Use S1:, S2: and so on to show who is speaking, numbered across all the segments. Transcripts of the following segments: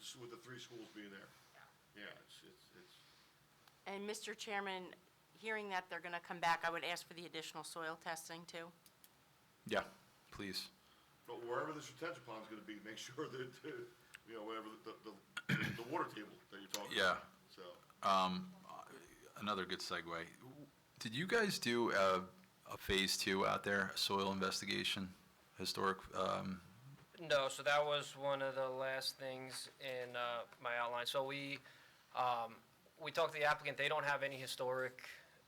S1: s- with the three schools being there. Yeah, it's, it's, it's,
S2: And Mr. Chairman, hearing that they're going to come back, I would ask for the additional soil testing too.
S3: Yeah, please.
S1: but wherever this retention pond's gonna be, make sure that, uh, you know, whatever, the, the, the water table that you're talking about.
S3: Yeah.
S1: So,
S3: Um, Another good segue. Did you guys do a, a phase two out there, a soil investigation, historic? Um,
S4: No, so that was one of the last things in uh, my outline. So we, um, we talked to the applicant, they don't have any historic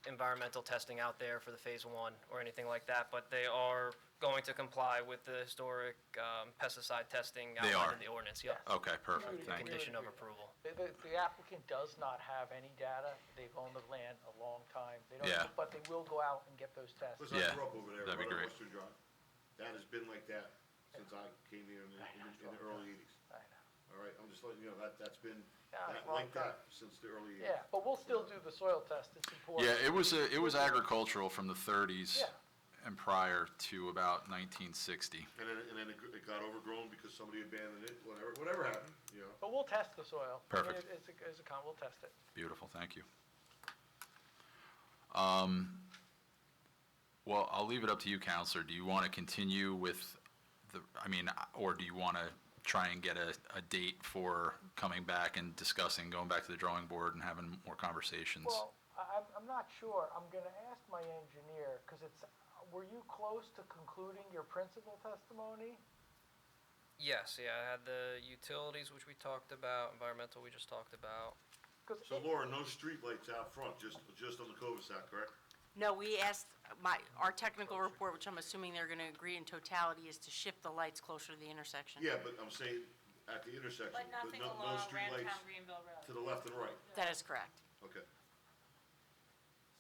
S4: environmental testing out there for the Phase 1 or anything like that, but they are going to comply with the historic um, pesticide testing
S3: They
S4: outlined
S3: are.
S4: in the ordinance, yeah.
S3: okay, perfect. Thank you.
S4: Condition of approval.
S5: The- The the applicant does not have any data. They've owned the land a long time. They don't-
S3: Yeah.
S5: But they will go out and get those tests.
S1: listen, I
S3: Yeah,
S1: grew up over there,
S3: that'd be
S1: right on
S3: great.
S1: Western Drive. That has been like that since I came here in the, in the- in the early eighties.
S5: I know.
S1: All right, I'm just letting you know, that, that's been,
S5: Yeah,
S1: that,
S5: well
S1: like that,
S5: done.
S1: since the early eighties.
S5: Yeah, but we'll still do the soil test. It's important.
S3: Yeah, it was, a- it was agricultural from the 30s
S5: Yeah.
S3: and prior to about 1960.
S1: And then, and then it gr- it got overgrown because somebody abandoned it, whatever, whatever happened, you know?
S5: But we'll test the soil. I mean,
S3: Perfect.
S5: it- It's a, it's a con, we'll test it.
S3: Beautiful, thank you. Um, Well, I'll leave it up to you, Counselor. Do you want to continue with the, I mean, or do you want to try and get a, a date for coming back and discussing, going back to the drawing board and having more conversations?
S5: Well, I- I'm, I'm not sure. I'm going to ask my engineer, because it's, were you close to concluding your principal testimony?
S4: Yes, yeah, I had the utilities, which we talked about, environmental, we just talked about.
S5: 'Cause
S1: So
S5: it-
S1: Laura, no streetlights out front, just, just on the cul-de-sac, correct?
S2: No, we asked, my, our technical report, which I'm assuming they're going to agree in totality, is to shift the lights closer to the intersection.
S1: Yeah, but I'm saying at the intersection,
S6: But
S1: but
S6: nothing
S1: no, no
S6: along Rantown
S1: streetlights
S6: Greenville Road.
S1: to the left and right,
S2: That is correct.
S1: okay.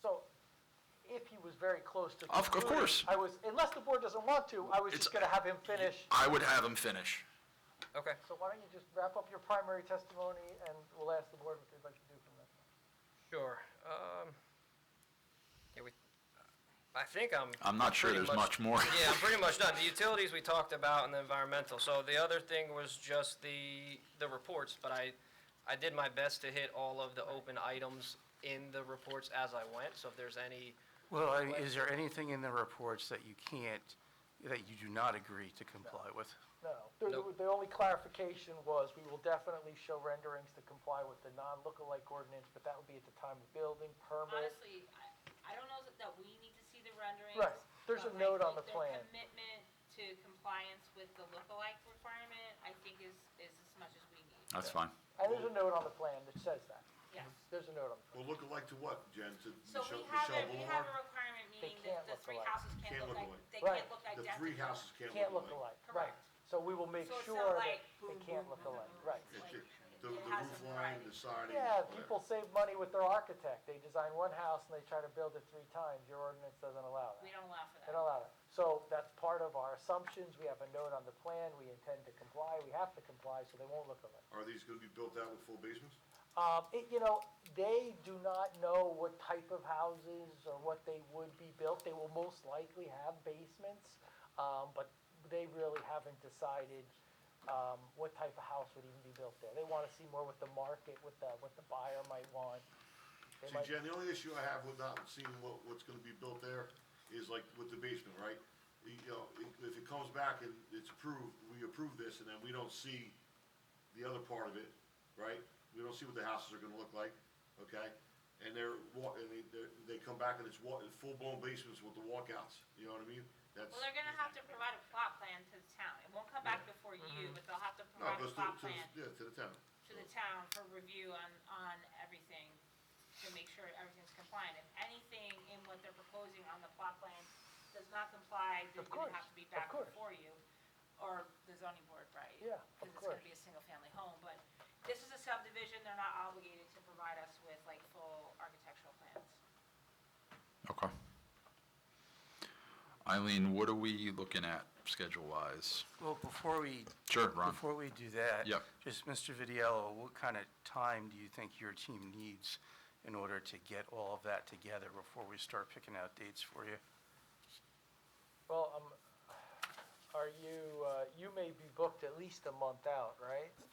S5: So if he was very close to.
S3: Of- of
S5: concluding,
S3: course.
S5: I was, unless the board doesn't want to, I was
S3: It's-
S5: just going to have him finish.
S3: I would have him finish.
S4: Okay,
S5: So why don't you just wrap up your primary testimony, and we'll ask the board what they'd like to do from there.
S4: sure. Um, Yeah, we, I think I'm.
S3: I'm not sure
S4: pretty
S3: there's much more.
S4: Yeah, I'm pretty much done. The utilities we talked about and the environmental. So the other thing was just the, the reports, but I, I did my best to hit all of the open items in the reports as I went. So if there's any,
S7: Well, I mean, is there anything in the reports that you can't, that you do not agree to comply with?
S5: No. The-
S4: Nope.
S5: The only clarification was, we will definitely show renderings to comply with the non-lookalike ordinance, but that would be at the time of building, permit.
S6: Honestly, I, I don't know that- that we need to see the renderings.
S5: Right. There's a
S6: but I
S5: note on
S6: think
S5: the plan.
S6: Their commitment to compliance with the lookalike requirement, I think is, is as much as we need,
S3: That's fine.
S5: And there's a note on the plan that says that.
S6: yes.
S5: There's a note on
S1: Well, look alike to what, Jen, to
S6: So
S1: Michelle,
S6: we have
S1: Michelle
S6: a, we have a
S1: Boulevard?
S6: requirement, meaning that
S5: can't
S6: the
S5: look
S6: three
S5: alike.
S6: houses
S1: Can't
S6: can't look
S1: look
S6: like,
S1: alike.
S6: they
S5: Right.
S6: can't look
S1: The
S6: identical.
S1: three houses
S5: the,
S1: can't
S5: can't
S1: look
S5: look
S1: alike.
S5: alike, right.
S6: Correct.
S5: So we will make
S6: So it's not
S5: sure that
S6: like
S5: they
S6: boom,
S5: can't
S6: boom,
S5: look
S6: boom,
S5: alike,
S6: boom.
S5: right.
S1: It's
S6: Like,
S1: ju-
S6: it
S1: The, the
S6: has
S1: roof
S6: some
S1: line,
S6: variety.
S1: the siding.
S5: Yeah,
S1: whatever.
S5: people save money with their architect. They design one house and they try to build it three times. Your ordinance doesn't allow
S6: We
S5: that.
S6: don't allow
S5: They
S6: for that.
S5: don't allow that. So that's part of our assumptions. We have a note on the plan. We intend to comply. We have to comply, so they won't look alike.
S1: Are these gonna be built out with full basements?
S5: Um, it, you know, they do not know what type of houses or what they would be built. They will most likely have basements, um, but they really haven't decided, um, what type of house would even be built there. They wanna see more what the market, what the, what the buyer might want. They
S1: See,
S5: might-
S1: Jen, the only issue I have with not seeing what, what's gonna be built there is like with the basement, right? You know, if- if it comes back and it's approved, we approve this, and then we don't see the other part of it, right? We don't see what the houses are gonna look like, okay? And they're, wa- and they, they're- they come back and it's wa, full-blown basements with the walkouts, you know what I mean? That's,
S6: Well, they're gonna have to provide a plot plan to the town. It won't come back before you, but they'll have to
S1: Mm-hmm. no,
S6: provide a
S1: goes to,
S6: plot
S1: to,
S6: plan
S1: the- yeah, to the tenant.
S6: to the town for review on, on everything, to make sure everything's compliant. If anything in what they're proposing on the plot plan does not comply, then
S5: Of
S6: gonna
S5: course,
S6: have to be
S5: of
S6: back
S5: course.
S6: before you, or the zoning board, right?
S5: Yeah, of
S6: Because it's gonna
S5: course.
S6: be a single-family home, but this is a subdivision, they're not obligated to provide us with like full architectural plans.
S3: Okay. Eileen, what are we looking at schedule-wise?
S7: Well, before we,
S3: Sure, Ron.
S7: before we do that.
S3: Yep.
S7: Just, Mr. Vidiello, what kind of time do you think your team needs in order to get all of that together before we start picking out dates for you?
S5: Well, um, are you, uh, you may be booked at least a month out, right?